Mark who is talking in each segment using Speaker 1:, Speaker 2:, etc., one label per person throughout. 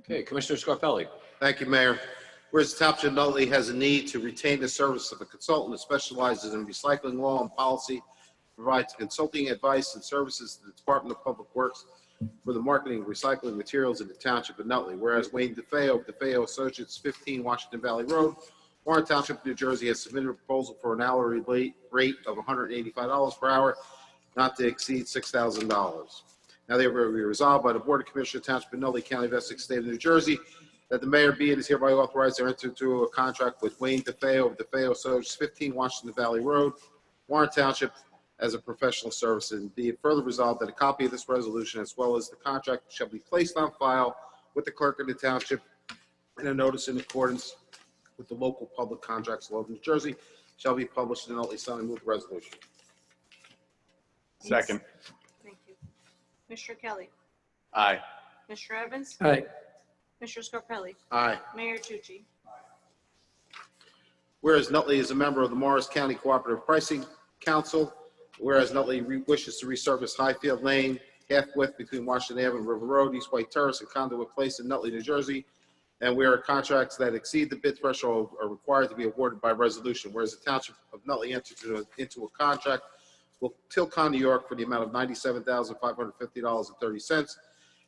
Speaker 1: Okay, Commissioner Scarpelli.
Speaker 2: Thank you, Mayor. Whereas the Township of Nutley has a need to retain the service of a consultant that specializes in recycling law and policy, provides consulting advice and services to the Department of Public Works for the marketing of recycling materials in the Township of Nutley. Whereas Wayne DeFeo of DeFeo Associates, 15 Washington Valley Road, Warren Township, New Jersey, has submitted a proposal for an hourly rate- rate of $185 per hour, not to exceed $6,000. Now therefore be resolved by the Board of Commissioners Township of Nutley County of Essex State of New Jersey that the mayor be and is hereby authorized to enter into a contract with Wayne DeFeo of DeFeo Associates, 15 Washington Valley Road, Warren Township, as a professional service. And be it further resolved that a copy of this resolution as well as the contract shall be placed on file with the clerk of the township and a notice in accordance with the local public contracts law of New Jersey shall be published in the Nutley Sun. I move the resolution.
Speaker 3: Second.
Speaker 4: Thank you. Mr. Kelly.
Speaker 3: Aye.
Speaker 4: Mr. Evans.
Speaker 1: Aye.
Speaker 4: Mr. Scarpelli.
Speaker 2: Aye.
Speaker 4: Mayor Tucci.
Speaker 2: Whereas Nutley is a member of the Morris County Cooperative Pricing Council, whereas Nutley re- wishes to resurface Highfield Lane, half-width between Washington Avenue and River Road, East White Terrace, and Conduit Place in Nutley, New Jersey, and where contracts that exceed the bid threshold are required to be awarded by resolution, whereas the Township of Nutley entered into a- into a contract with Tilcon, New York, for the amount of $97,550.30,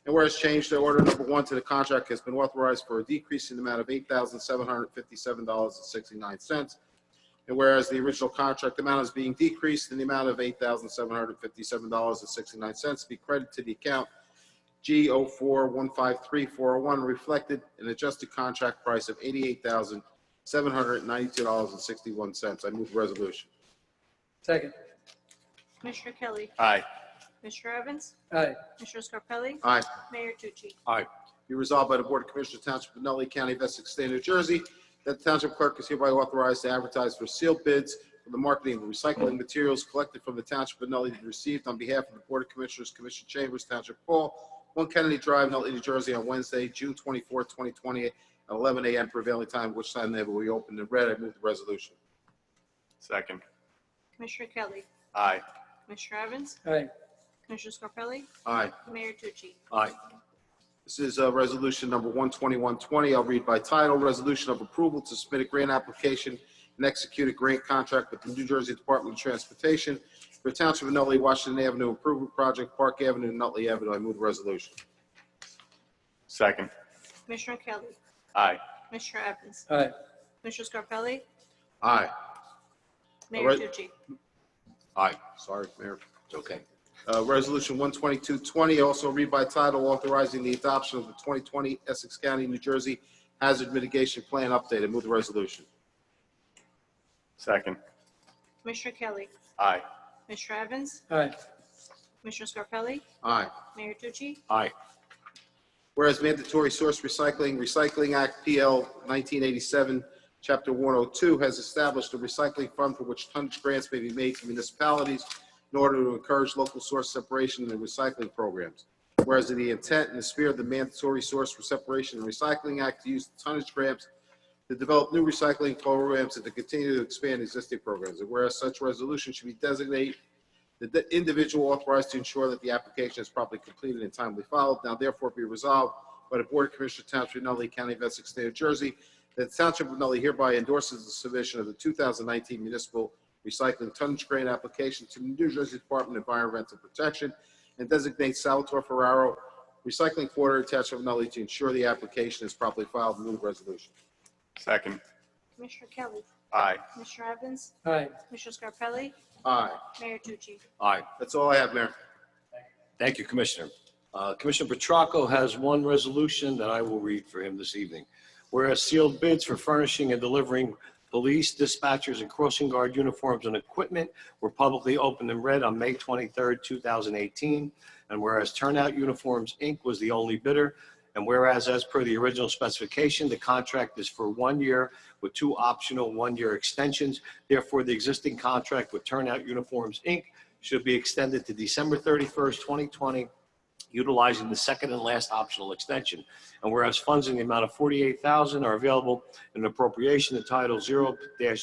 Speaker 2: and whereas change to order number one to the contract has been authorized for a decrease in the amount of $8,757.69. And whereas the original contract amount is being decreased in the amount of $8,757.69 be credited to the account G04153401 reflected an adjusted contract price of $88,792.61. I move the resolution.
Speaker 1: Second.
Speaker 4: Mr. Kelly.
Speaker 3: Aye.
Speaker 4: Mr. Evans.
Speaker 1: Aye.
Speaker 4: Mr. Scarpelli.
Speaker 2: Aye.
Speaker 4: Mayor Tucci.
Speaker 2: Be resolved by the Board of Commissioners Township of Nutley County of Essex State of New Jersey that the Township Clerk is hereby authorized to advertise for sealed bids for the marketing of recycling materials collected from the Township of Nutley and received on behalf of the Board of Commissioners, Commission Chambers, Township Hall, 1 Kennedy Drive, Nutley, New Jersey, on Wednesday, June 24, 2020, at 11 a.m. prevailing time, which time they will be opened and read. I move the resolution.
Speaker 3: Second.
Speaker 4: Mr. Kelly.
Speaker 3: Aye.
Speaker 4: Mr. Evans.
Speaker 1: Aye.
Speaker 4: Mr. Scarpelli.
Speaker 2: Aye.
Speaker 4: Mayor Tucci.
Speaker 3: Aye.
Speaker 2: This is uh, Resolution Number 12120. I'll read by title, Resolution of Approval to Submit a Grant Application and Execute a Grant Contract with the New Jersey Department of Transportation for Township of Nutley, Washington Avenue Improvement Project, Park Avenue, and Nutley Avenue. I move the resolution.
Speaker 3: Second.
Speaker 4: Mr. Kelly.
Speaker 3: Aye.
Speaker 4: Mr. Evans.
Speaker 1: Aye.
Speaker 4: Mr. Scarpelli.
Speaker 2: Aye.
Speaker 4: Mayor
Speaker 2: right.
Speaker 4: Tucci.
Speaker 2: Aye. Sorry, Mayor.
Speaker 1: It's okay.
Speaker 2: Uh, Resolution 12220, also read by title, authorizing the adoption of the 2020 Essex County, New Jersey Hazard Mitigation Plan Update. I move the resolution.
Speaker 3: Second.
Speaker 4: Mr. Kelly.
Speaker 3: Aye.
Speaker 4: Mr. Evans.
Speaker 1: Aye.
Speaker 4: Mr. Scarpelli.
Speaker 2: Aye.
Speaker 4: Mayor Tucci.
Speaker 3: Aye.
Speaker 2: Whereas Mandatory Source Recycling Recycling Act PL 1987, Chapter 102, has established a recycling fund for which tonnage grants may be made to municipalities in order to encourage local source separation and recycling programs. Whereas in the intent and the spirit of the Mandatory Source for Separation and Recycling Act to use tonnage grants to develop new recycling programs and to continue to expand existing programs. And whereas such resolution should be designated the individual authorized to ensure that the application is properly completed and timely filed. Now therefore be resolved by the Board of Commissioners Township of Nutley County of Essex State of New Jersey that the Township of Nutley hereby endorses the submission of the 2019 Municipal Recycling Tonnage Grant Application to the New Jersey Department of Environmental Protection and designates Salvatore Ferraro Recycling Quarter Township of Nutley to ensure the application is properly filed. Move the resolution.
Speaker 3: Second.
Speaker 4: Mr. Kelly.
Speaker 3: Aye.
Speaker 4: Mr. Evans.
Speaker 1: Aye.
Speaker 4: Mr. Scarpelli.
Speaker 2: Aye.
Speaker 4: Mayor Tucci.
Speaker 1: Aye.
Speaker 2: That's all I have, Mayor.
Speaker 1: Thank you, Commissioner. Uh, Commissioner Petracco has one resolution that I will read for him this evening. Whereas sealed bids for furnishing and delivering police dispatchers and crossing guard uniforms and equipment were publicly opened and read on May 23rd, 2018. And whereas Turnout Uniforms, Inc. was the only bidder, and whereas as per the original specification, the contract is for one year with two optional one-year extensions. Therefore, the existing contract with Turnout Uniforms, Inc should be extended to December 31st, 2020, utilizing the second and last optional extension. And whereas funds in the amount of 48000 are available in appropriation to Title 0-3